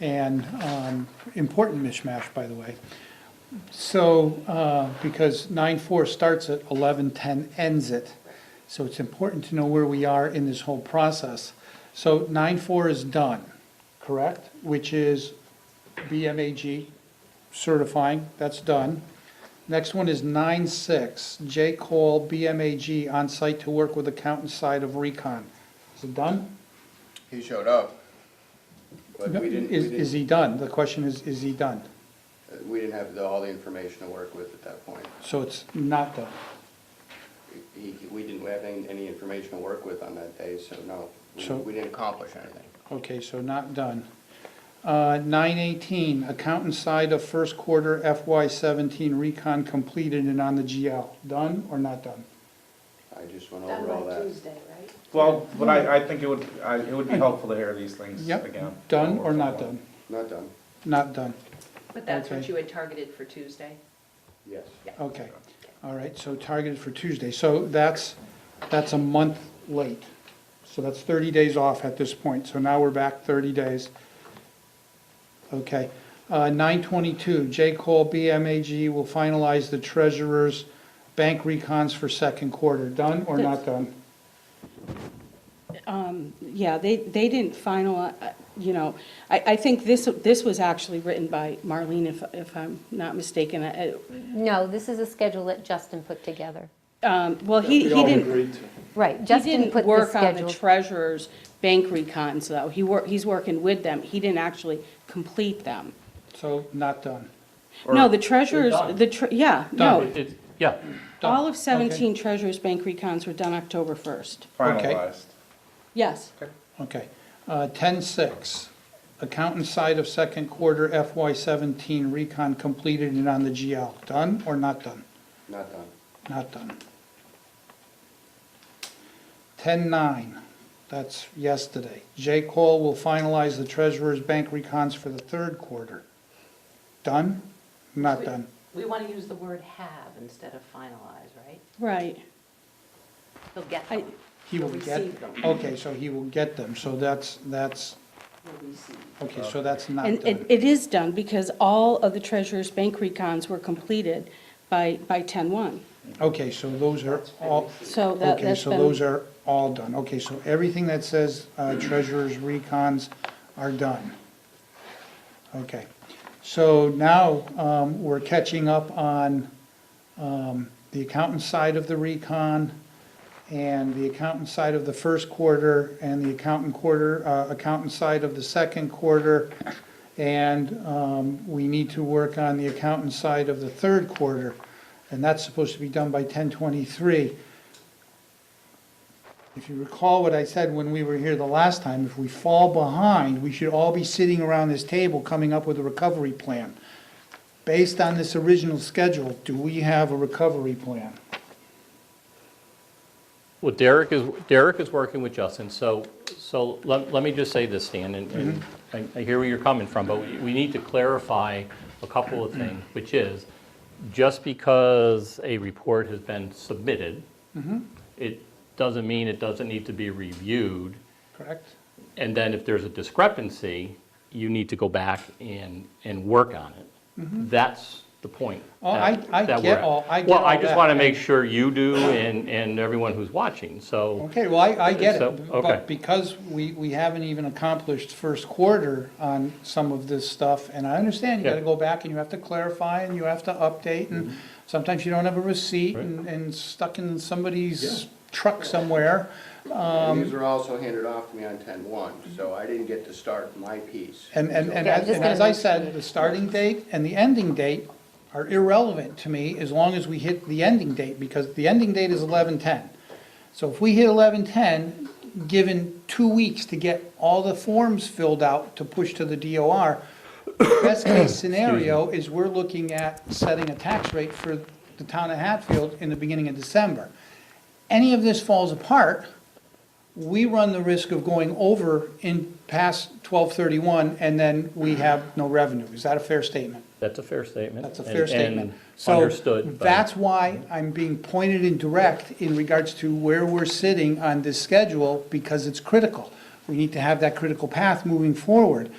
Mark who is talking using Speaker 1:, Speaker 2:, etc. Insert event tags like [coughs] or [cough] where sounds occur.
Speaker 1: and, um, important mishmash, by the way. So, uh, because nine four starts at eleven ten ends it, so it's important to know where we are in this whole process. So nine four is done, correct? Which is BMAG certifying, that's done. Next one is nine six, J Cole BMAG on site to work with accountant side of recon. Is it done?
Speaker 2: He showed up, but we didn't, we
Speaker 1: Is, is
Speaker 2: didn't, uh,
Speaker 1: he done? The question is, is he done?
Speaker 2: we didn't have the- all the information to work with at that point.
Speaker 1: So it's not done.
Speaker 2: He, we didn't have any, any information to work with on that day, so no, we-
Speaker 1: So-
Speaker 2: we didn't accomplish anything.
Speaker 1: Okay, so not done. Uh, Nine eighteen, accountant side of first quarter FY seventeen recon completed and on the GL. Done or not done?
Speaker 2: I just went
Speaker 3: Done
Speaker 2: over all
Speaker 3: by
Speaker 2: that.
Speaker 3: Tuesday, right?
Speaker 4: Well, but I, I think it would, I, it would be helpful to hear these things again.
Speaker 1: Yep, done or not done?
Speaker 2: Not done,
Speaker 1: Not done.
Speaker 5: But that's
Speaker 1: Okay.
Speaker 5: what you had targeted for Tuesday?
Speaker 2: yes.
Speaker 1: Okay, all right, so targeted for Tuesday, so that's, that's a month late. So that's thirty days off at this point, so now we're back thirty days. Okay, uh, nine twenty-two, J. Cole BMAG will finalize the treasurer's bank recons for second quarter, done or not done?
Speaker 6: Yeah, they, they didn't final, uh, you know, I, I think this, this was actually written by Marlene, if, if I'm not mistaken. Uh, I-
Speaker 7: No, this is a schedule that Justin put together.
Speaker 6: um, Well, he, he didn't,
Speaker 7: Right,
Speaker 6: he
Speaker 7: Justin
Speaker 6: didn't
Speaker 7: put the
Speaker 6: work on the
Speaker 7: schedule.
Speaker 6: treasurer's bank recons, though. He wor, he's working with them. He didn't actually complete them.
Speaker 1: So, not done.
Speaker 6: No, the treasurer's, the, tre- yeah, no.
Speaker 8: It- it- Yeah,
Speaker 1: Done.
Speaker 6: All of
Speaker 1: Okay.
Speaker 6: 17 treasurer's bank recons were done October 1st.
Speaker 1: Okay.
Speaker 4: Finalized.
Speaker 6: Yes.
Speaker 1: Okay, uh, ten-six, accountant side of second quarter FY seventeen recon completed and on the GL, done or not done?
Speaker 2: Not done,
Speaker 1: Not done. Ten-nine, that's yesterday. J. Cole will finalize the treasurer's bank recons for the third quarter. Done? Not done.
Speaker 5: We want to use the word have instead of finalize, right?
Speaker 6: Right.
Speaker 5: He'll get
Speaker 6: I-
Speaker 5: them,
Speaker 1: He will
Speaker 5: He'll
Speaker 1: get,
Speaker 5: receive them.
Speaker 1: okay, so he will get them, so that's, that's,
Speaker 5: he'll receive.
Speaker 1: okay, so that's not
Speaker 6: And it,
Speaker 1: done.
Speaker 6: it is done because all of the treasurer's bank recons were completed by, by 10-1.
Speaker 1: Okay, so those are all,
Speaker 6: So that,
Speaker 1: Okay,
Speaker 6: that's
Speaker 1: so those
Speaker 6: been,
Speaker 1: are all done. Okay, so everything that says
Speaker 6: [clears throat]
Speaker 1: uh, treasurer's recons are done. Okay, so now um, we're catching up on um, the accountant side of the recon and the accountant side of the first quarter and the accountant quarter, uh, accountant side of the second quarter. And um, we need to work on the accountant side of the third quarter. And that's supposed to be done by 1023. If you recall what I said when we were here the last time, if we fall behind, we should all be sitting around this table coming up with a recovery plan. Based on this original schedule, do we have a recovery plan?
Speaker 8: well, Derek is, Derek is working with Justin, so, so let, let me just say this, Stan, and- and I- I hear where you're coming from, but we we need to clarify a couple of things, which is, just because a report has been submitted, it doesn't mean it doesn't need to be reviewed,
Speaker 1: Correct?
Speaker 8: and then if there's a discrepancy, you need to go back and, and work on it. That's the point.
Speaker 1: Mm-hmm. Oh, I-
Speaker 8: that-
Speaker 1: I
Speaker 8: that
Speaker 1: get
Speaker 8: we're at.
Speaker 1: all- I get
Speaker 8: Well, I
Speaker 1: all
Speaker 8: just
Speaker 1: that.
Speaker 8: want to make sure you do and, and everyone who's watching, so.
Speaker 1: Okay, well, I, I get
Speaker 8: So,
Speaker 1: it,
Speaker 8: okay.
Speaker 1: but because we, we haven't even accomplished first quarter on some of this stuff, and I understand, you
Speaker 8: Yeah. Mm-hmm.
Speaker 1: gotta go back and you have to clarify and you have to update, and sometimes you don't have a receipt
Speaker 8: Right.
Speaker 1: and, and stuck in somebody's truck somewhere. Um,
Speaker 2: And these were also handed off to me on ten-one, so I didn't get to start my piece.
Speaker 1: And, and, and
Speaker 7: Yeah, I'm
Speaker 1: as-
Speaker 7: just
Speaker 1: and as
Speaker 7: gonna
Speaker 1: I said, the starting date and the ending date are irrelevant to me as long as we hit the ending date, because the ending date is eleven-ten. So if we hit eleven-ten, given two weeks to get all the forms filled out to push to the DOR, [coughs] best case scenario is we're looking at setting a tax rate for the town of Hatfield in the beginning of December. Any of this falls apart, we run the risk of going over in past twelve thirty-one, and then we have no revenue. Is that a fair statement?
Speaker 8: That's a fair statement.
Speaker 1: That's a
Speaker 8: and-
Speaker 1: fair
Speaker 8: and
Speaker 1: statement. So
Speaker 8: Understood. but-
Speaker 1: that's why I'm being pointed and direct in regards to where we're sitting on this schedule, because it's critical. We need to have that critical path moving forward.